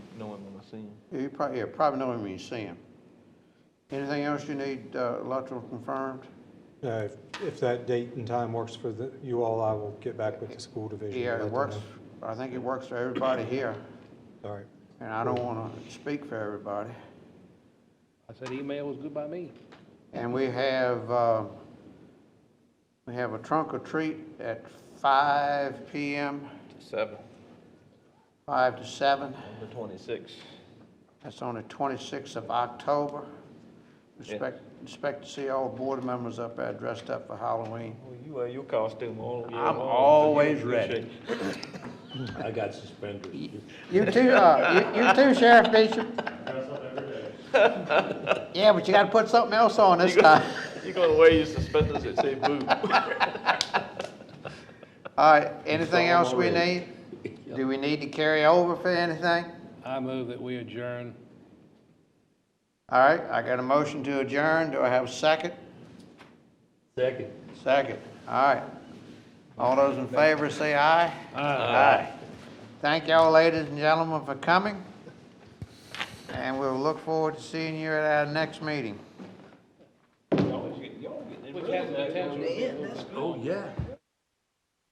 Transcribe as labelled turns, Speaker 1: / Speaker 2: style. Speaker 1: see him.
Speaker 2: Yeah, You probably, yeah, probably know him when you see him. Anything else you need, uh, electrical confirmed?
Speaker 3: Uh, if- If that date and time works for the- you all, I will get back with the school division. and
Speaker 2: Yeah,
Speaker 3: let
Speaker 2: it
Speaker 3: them
Speaker 2: works,
Speaker 3: know.
Speaker 2: I think it works for everybody here,
Speaker 3: All right.
Speaker 2: and I don't wanna speak for everybody.
Speaker 1: I said email was good by me.
Speaker 2: And we have, uh, we have a trunk or treat at five PM,
Speaker 4: Seven.
Speaker 2: five to seven.
Speaker 4: Number twenty-six.
Speaker 2: That's on the twenty-sixth of October.
Speaker 4: Yeah.
Speaker 2: Expect, expect to see all board members up there dressed up for Halloween.
Speaker 4: Well, Oh, you wear your costume all year long.
Speaker 5: I'm
Speaker 4: so you
Speaker 5: always
Speaker 4: appreciate
Speaker 5: ready.
Speaker 4: it.
Speaker 5: I got suspenders.
Speaker 2: You too, uh, you, you too, Sheriff Bishop. Yeah, but you gotta put something else on this time.
Speaker 4: You gonna wear your suspenders that say boo?
Speaker 2: All right, anything else we need?
Speaker 5: already.
Speaker 2: Do we need to carry over for anything?
Speaker 1: I move that we adjourn.
Speaker 2: All right, I got a motion to adjourn. Do I have a second?
Speaker 5: Second.
Speaker 2: Second, all right. All those in favor say aye. Aye. Thank y'all, ladies and gentlemen, for coming. And we'll look forward to seeing you at our next meeting.
Speaker 4: Y'all get- y'all get in rhythm.
Speaker 5: Oh, yeah.